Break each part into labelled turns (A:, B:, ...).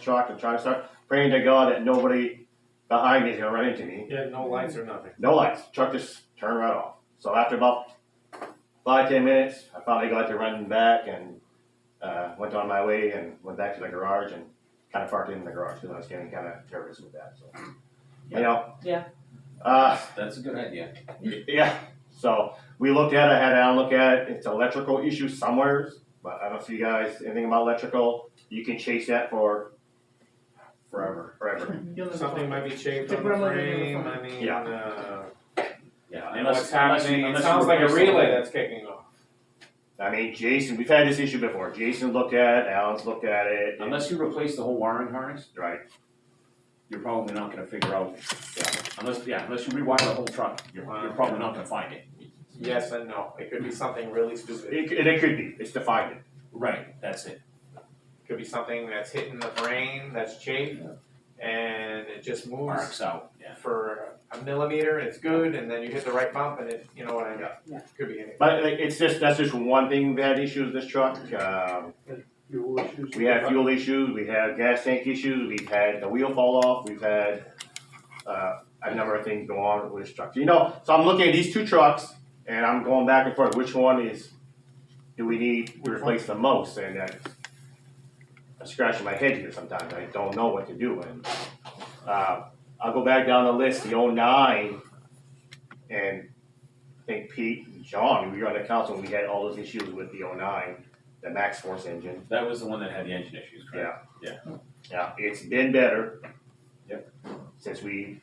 A: truck and try to start praying to God that nobody behind me is gonna run into me.
B: Yeah, no lights or nothing.
A: No lights. Truck just turned right off. So after about five ten minutes, I finally got to running back and uh, went on my way and went back to the garage and kind of parked in the garage because I was getting kind of nervous with that. So you know.
C: Yeah.
A: Uh,
D: That's a good idea.
A: yeah. So we looked at it, had Alan look at it. It's electrical issue somewhere, but I don't see you guys anything about electrical. You can chase that for
D: Forever.
A: forever.
C: You'll never
B: Something
C: find
B: might be chafed
C: The
B: on the
C: gremlin in the
B: frame,
C: front.
B: I mean,
A: Yeah.
B: uh,
D: Yeah.
B: and
D: Unless,
B: what's happening,
D: unless,
B: it
D: unless
B: sounds
D: you
B: like a
D: replace
B: relay
D: the-
B: that's kicking off.
A: I mean, Jason, we've had this issue before. Jason looked at it, Alan's looked at it. and-
D: Unless you replace the whole wiring harness,
A: right.
D: you're probably not gonna figure out, unless, yeah, unless you rewire the whole truck, you're, you're probably not gonna find it.
B: Yes and no, it could be something really stupid,
A: It, it, it could be. It's defined.
D: Right, that's it.
B: It could be something that's hitting the brain, that's chafed, and it just moves
D: Marks out, yeah.
B: for a millimeter, and it's good, and then you hit the right bump, and it, you know what I mean?
A: Yeah.
C: Yeah.
B: Could be anything.
A: But like, it's just that's just one thing we had issues with this truck. Um,
E: Fuel issues.
A: we had fuel issues. We had gas tank issues. We've had the wheel fall off. We've had uh, a number of things go on with this truck. You know, so I'm looking at these two trucks and I'm going back and forth. Which one is do we need to replace the most? And I, I'm scratching my head here sometimes. I don't know what to do. And uh, I'll go back down the list. The 09 and I think Pete and John, we were on the council, we had all those issues with the 09, the max force engine.
D: That was the one that had the engine issues, correct?
A: Yeah, it's been better.
D: Yep.
A: Since we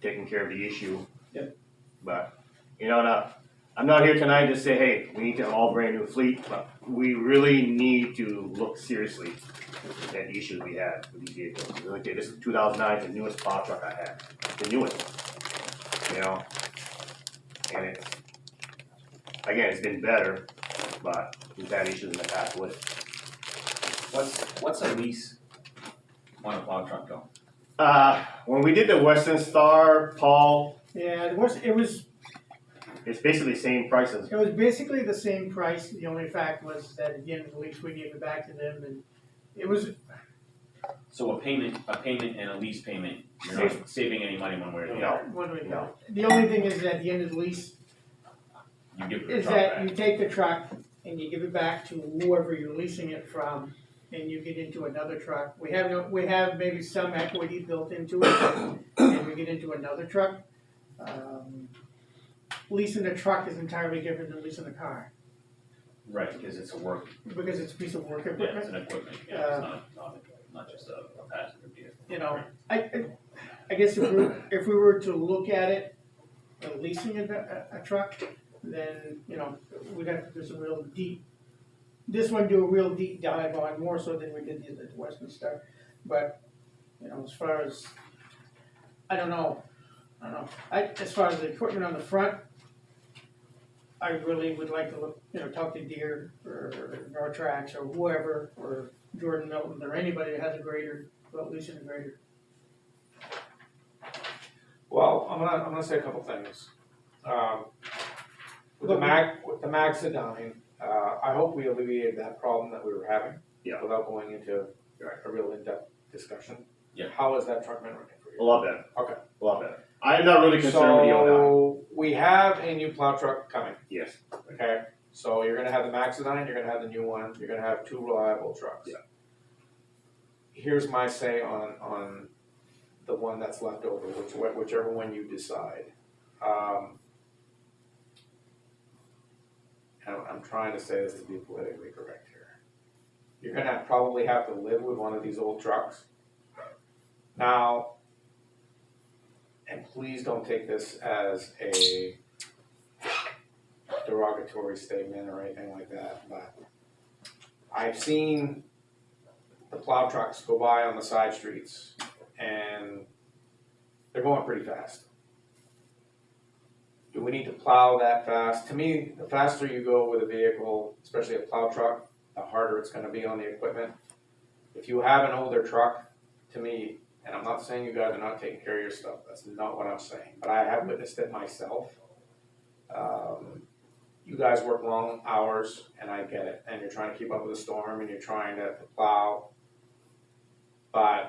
A: taken care of the issue.
D: Yep.
A: But, you know, now, I'm not here tonight to say, hey, we need to all brand new fleet, but we really need to look seriously at the issues we had with these vehicles. Really, this is two thousand nine, the newest plow truck I had, the newest one, you know? And it's, again, it's been better, but we've had issues in the past with it.
D: What's, what's a lease on a plow truck go?
A: Uh, when we did the Western Star, Paul,
C: it. Yeah, it was, it was,
A: it's basically the same price as
C: it was basically the same price, the only fact was that at the end of the lease, we gave it back to them, and it was,
D: So a payment, a payment and a lease payment, you're not saving any money one way or the
A: No.
D: other.
C: what do we
A: No.
C: know? The only thing is, at the end of the lease,
D: You give the
C: is
D: truck
C: that
D: back.
C: you take the truck and you give it back to whoever you're leasing it from, and you get into another truck. We have, no- we have maybe some equity built into it, and we get into another truck. Um, Leasing a truck is entirely different than leasing a car,
D: Right, because it's a work,
C: because it's a piece of work
D: yeah, it's
C: equipment,
D: an equipment, yeah, it's
C: Uh,
D: not, not, not just a a passenger vehicle.
C: you know. I, I- I guess if we, if we were to look at it, uh, leasing a, a- a truck, then, you know, we'd have to do some real deep, this one do a real deep dive on more so than we did the other Western Star. But, you know, as far as, I don't know, I don't know, I, as far as the equipment on the front, I really would like to look, you know, talk to Deere or Nortrax or whoever, or Jordan Milton, or anybody that has a grader, about leasing a grader.
B: Well, I'm gonna, I'm gonna say a couple things. Um, with the
C: Look, we-
B: Mac, with the Maxidine, uh, I hope we alleviated that problem that we were having.
A: Yeah.
B: Without going into
A: Right.
B: a real in-depth discussion.
D: Yeah.
B: How has that truck been running for
A: a
B: you?
A: lot better.
B: Okay.
A: A lot better. I'm not really concerned with the O9.
B: So, we have a new plow truck coming,
A: Yes.
B: okay? So you're gonna have the Maxidine, you're gonna have the new one, you're gonna have two reliable trucks.
A: Yeah.
B: Here's my say on, on the one that's left over, which, whichever one you decide. Um, I'm, I'm trying to say this to be politically correct here. You're gonna probably have to live with one of these old trucks. Now, and please don't take this as a derogatory statement or anything like that, but I've seen the plow trucks go by on the side streets and they're going pretty fast. Do we need to plow that fast? To me, the faster you go with a vehicle, especially a plow truck, the harder it's gonna be on the equipment. If you have an older truck, to me, and I'm not saying you guys are not taking care of your stuff, that's not what I'm saying, but I have witnessed it myself. Um, you guys work long hours, and I get it, and you're trying to keep up with the storm, and you're trying to plow. But